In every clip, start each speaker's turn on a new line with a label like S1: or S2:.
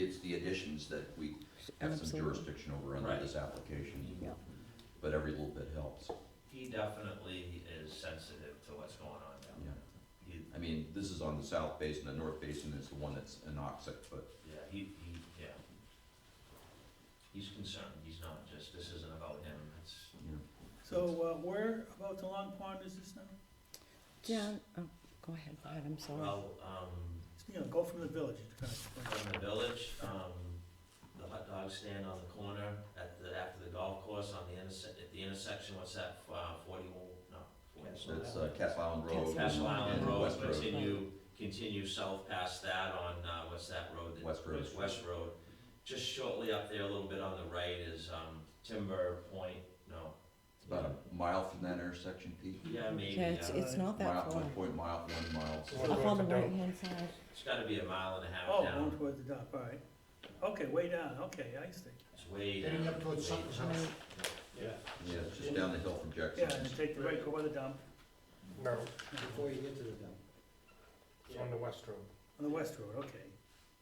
S1: it's the additions that we have some
S2: Absolutely.
S1: jurisdiction over under
S3: Right.
S1: this application,
S2: Yeah.
S1: but every little bit helps.
S3: He definitely is sensitive to what's going on down
S1: Yeah.
S3: there. He,
S1: I mean, this is on the south basin, the north basin is the one that's anoxic, but
S3: yeah, he, he, yeah. He's concerned, he's not just, this isn't about him, it's,
S1: you know,
S4: So, uh, where about the Long Pond is this now?
S2: John, oh, go ahead, Pat, I'm sorry.
S3: well, um,
S4: You know, go from the village, it's kind of.
S3: from the village, um, the hot dog stand on the corner at the, after the golf course on the interse, at the intersection, what's that, uh, forty-one, no, forty-one.
S1: that's uh, Castle Island Road.
S3: Castle Island
S1: and
S3: Road,
S1: West
S3: continue, continue south past that on, uh, what's that road? that-
S1: West Road.
S3: it's West Road. Just shortly up there, a little bit on the right is, um, Timber Point, no.
S1: It's about a mile from that intersection, Pete.
S3: Yeah, maybe,
S2: Yeah, it's,
S3: uh,
S2: it's not that
S1: Mile,
S2: far.
S1: one point mile, one mile.
S2: Up on the right-hand side,
S3: it's gotta be a mile and a half
S4: Oh, going
S3: down,
S4: towards the dock, all right. Okay, way down, okay, I see.
S3: it's way down.
S5: Heading up towards
S3: way
S5: Sutton's
S3: down.
S5: house.
S6: Yeah,
S1: Yeah, it's just down the hill from
S4: Yeah, and
S1: Jackson's.
S4: then take the right, go by the dump,
S5: No,
S6: before you get to the dump.
S5: it's on the west road.
S4: on the west road, okay.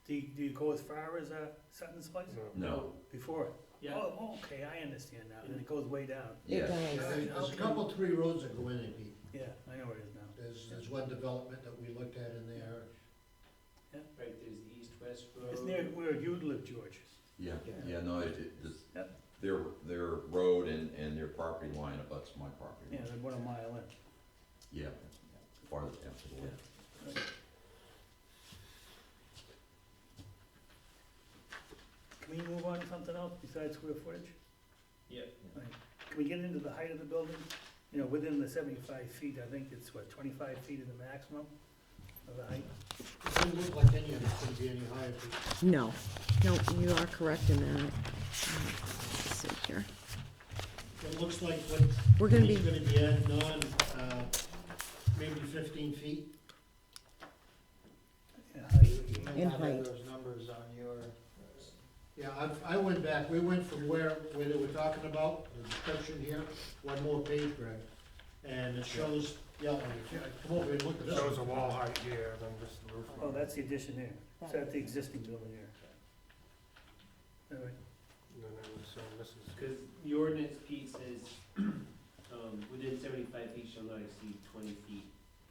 S4: Do you, do you go as far as, uh, Sutton's place?
S1: No,
S4: Before it? Oh, okay, I understand now, and it goes way down.
S2: it
S1: yes.
S2: does.
S5: There's there's a couple, three roads that go in there, Pete.
S4: Yeah, I know where it is now.
S5: There's, there's one development that we looked at in there.
S6: Right, there's the east-west road.
S4: It's near where you live, George.
S1: Yeah, yeah, no, it, it, this,
S4: Yep.
S1: their, their road and, and their property line abuts my property.
S4: Yeah,
S1: line.
S4: they're about a mile
S1: Yeah, farther down to the left.
S4: in. Can we move on to something else besides square footage?
S6: Yeah.
S4: Can we get into the height of the building? You know, within the seventy-five feet, I think it's what, twenty-five feet is the maximum of the height?
S5: It doesn't look like any of it's gonna be any higher, Pete.
S2: No, no, you are correct in that. Let's see here.
S5: It looks like what
S2: We're gonna
S5: He's
S2: be,
S5: gonna be adding on, uh, maybe fifteen feet.
S4: Yeah, height.
S2: In height.
S5: those numbers on your. Yeah, I, I went back, we went from where, where they were talking about, the description here, one more page, Greg. And it shows, yeah, like, yeah, come over and look at this.
S7: Shows a wall height here, then just the roof
S4: Oh,
S7: line.
S4: that's the addition there. Is that the existing building there? All right.
S7: And then I'm assuming this is,
S6: Because the ordinance piece is, um, within seventy-five feet shall not exceed twenty feet,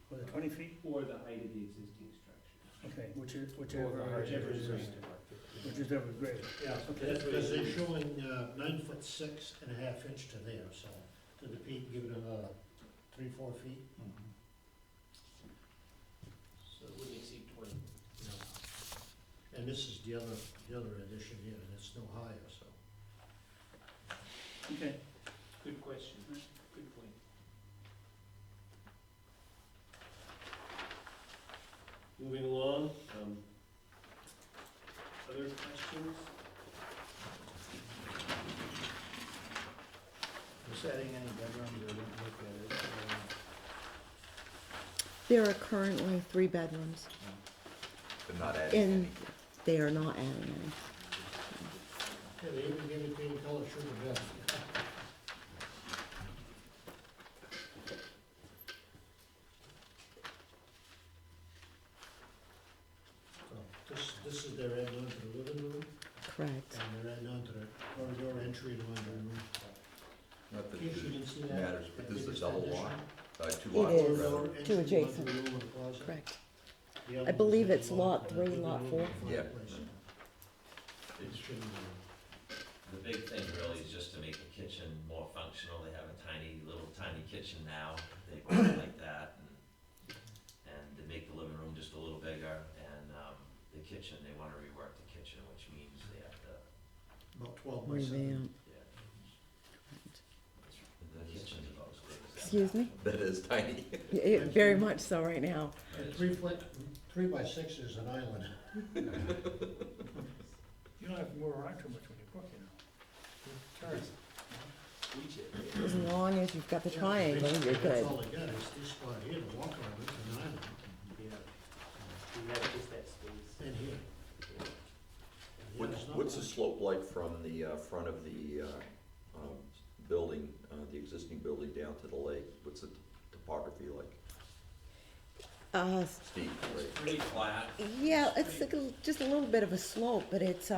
S4: Was it twenty feet?
S6: or the height of the existing structure.
S4: Okay, which is,
S7: Or the
S4: whichever,
S7: height.
S6: Whichever is
S7: Right.
S6: reasonable.
S4: which is ever greater.
S5: Yeah,
S4: Okay.
S5: because they're showing, uh, nine foot six and a half inch to there, so, to the peak, give it another three, four feet.
S6: So it wouldn't exceed twenty.
S5: And this is the other, the other addition here, and it's no higher, so.
S4: Okay.
S6: Good question, good point. Moving along, um, other questions?
S5: Was adding any bedrooms, I didn't look at it.
S2: there are currently three bedrooms
S1: But not adding
S2: and they are not adding any.
S5: Yeah, they even gave it to you in color sugar bed. So, This, this is their end onto the living room,
S2: Correct.
S5: and their end onto the corridor entry to my room.
S1: Not that
S5: In case you
S1: it
S5: didn't see that.
S1: matters, but
S5: that
S1: this is a
S5: biggest
S1: double
S5: addition.
S1: lot, uh, two
S2: It
S1: lots
S2: is.
S1: rather.
S5: Corridor entry to my
S2: adjacent.
S5: room and closet.
S2: Correct.
S5: The other
S2: I believe
S5: one's
S2: it's
S5: a
S2: lot three,
S5: living
S2: lot
S5: room,
S2: four.
S1: Yeah.
S5: fireplace.
S1: It's-
S5: It shouldn't be.
S3: The big thing really is just to make the kitchen more functional, they have a tiny, little tiny kitchen now, they bought it like that, and, and to make the living room just a little bigger, and, um, the kitchen, they wanna rework the kitchen, which means they have to,
S5: About twelve by seven.
S2: Revamp.
S3: yeah. The kitchen's about as good as that.
S2: Excuse me?
S1: That is tiny.
S2: Y- it- Very much so right now.
S3: But it's-
S5: Three foot, three by six is an island.
S4: You don't have to move around too much when you cook, you know.
S2: As long as you've got the triangle, you're
S5: That's
S2: good.
S5: all they got is this spot here to walk on, it's an island,
S6: Yeah. We have just that space.
S5: and here.
S1: What-
S5: Yeah, it's not
S1: What's the
S5: much.
S1: slope like from the uh, front of the uh, um, building, uh, the existing building down to the lake? What's the topography like?
S2: Uh,
S1: steep, right?
S3: Pretty flat.
S2: yeah, it's like a- just a little bit of a slope, but it's,